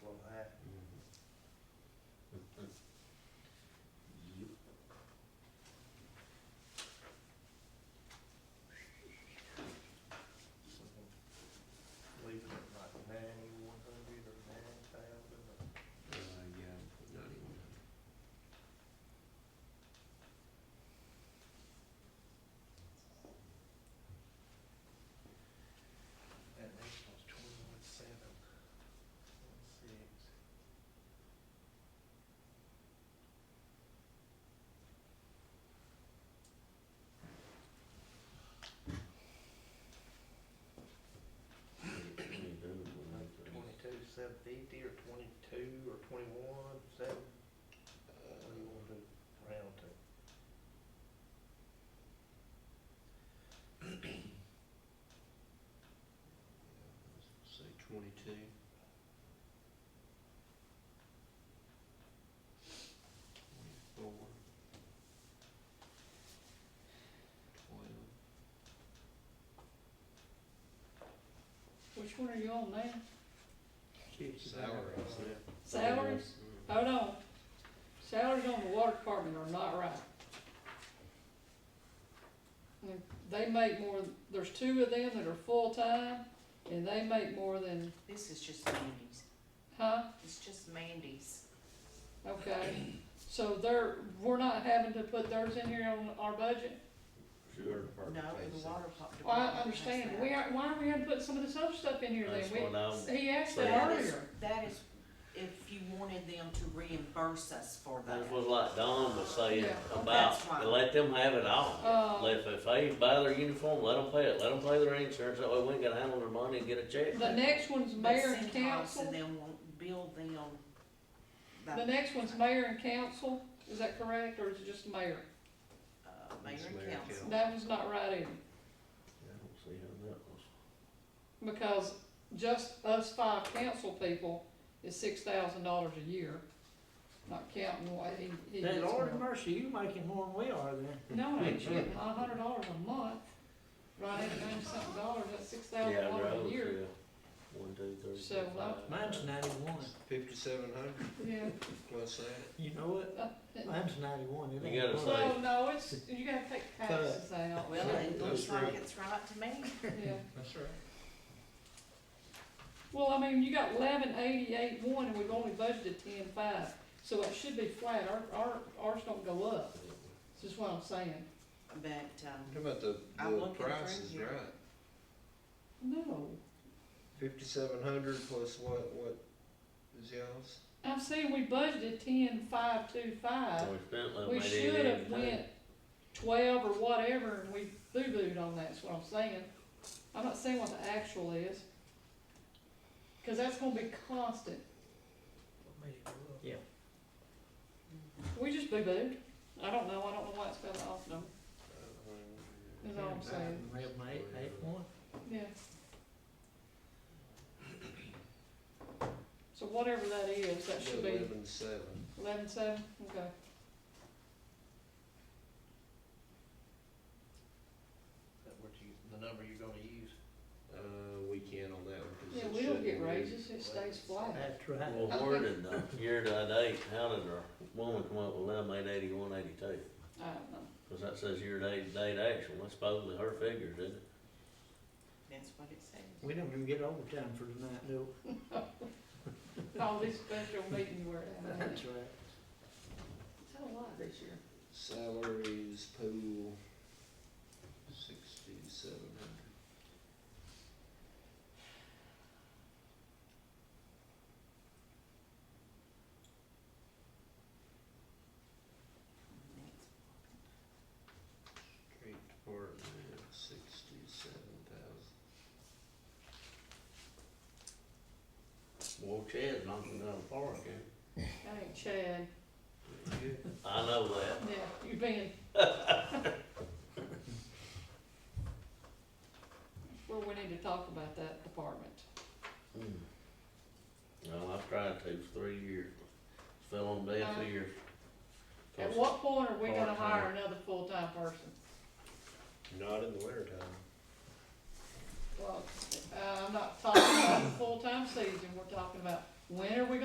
Twenty-two, seven fifty, or twenty-two, or twenty-one, seven, what do you wanna do, round to? Say twenty-two. Twenty-four. Twelve. Which one are you on now? Salary, I said. Salaries? Mm. Hold on. Salaries on the water department are not right. And They make more, there's two of them that are full-time, and they make more than, This is just Mandy's, huh? it's just Mandy's. Okay, so they're, we're not having to put theirs in here on our budget? Sure. No, the water pump Well, department. I understand, we are, why are we having to put some of this other stuff in here then? That's We- what I'm He asked that saying. earlier. That is, if you wanted them to reimburse us for that. That's what like Don was saying Yeah. That's about, right. let them have it all. Uh, If, if they buy their uniform, let them pay it, let them pay their insurance, that way we ain't gotta handle their money and get a check. the next one's But mayor and Centos And council, then won't build them. that, the next one's mayor and council, is that correct, or is it just mayor? Uh, mayor It's mayor and and council. That one's not right either. I don't see how that was. Because just us five council people is six thousand dollars a year, not counting what he, he Hey, gets. Lord from- have mercy, you making more than we are then. No, I ain't shit, not a hundred dollars a month, right, at ninety something dollars, that's six thousand Yeah, dollars a roads, year. yeah. One, two, three, So, four, well- five. Mine's ninety-one, Fifty-seven hundred Yeah. plus that. you know it? Mine's ninety-one. it You ain't gotta one. say- So, no, it's, you gotta take taxes out, Well, it That's looks like right. it's right to me. yeah. That's right. Well, I mean, you got eleven eighty-eight one, and we've only budgeted ten-five, so it should be flat, our, our, ours don't go up, is just what I'm saying. But, um, How about the, I'm the looking through price is right? here. No, Fifty-seven hundred plus what, what is y'all's? I'm saying we budgeted ten-five-two-five, We spent like We maybe should have 80, went twelve or whatever, and we boo-booed on that, is what I'm saying. I'm not saying what the actual is, cause that's gonna be constant. Yeah. We just boo-booed. I don't know, I don't know why it's spelled off, no, is all I'm saying, Real mate, eight one. yeah. So whatever that is, that should be Eleven seven. eleven-seven, okay. Is that what you, the number you're gonna use? Uh, we can on that one. 'cause Yeah, it we don't shouldn't get be. raises, it stays flat. That's right. Well, where did the year to date, how did our woman come up with eleven eight eighty-one eighty-two? I don't know. Cause that says year to date, date actual, that's supposedly her figures, isn't it? that's what it says. We don't even get overtime for tonight, do we? All these special meetings were at. It's That's right. had a lot this year. Salaries pool, sixty-seven hundred. Street department, sixty-seven thousand. Well, Chad's knocking down the park, eh? That ain't Chad. I know that. Yeah, you been. Well, we need to talk about that department. Hmm. Well, I've tried to for three years, fell on deaf Uh-huh. ears. At what point are we gonna Part-time. hire another full-time person? Not in the wintertime. Well, uh, I'm not talking about full-time season, we're talking about when are we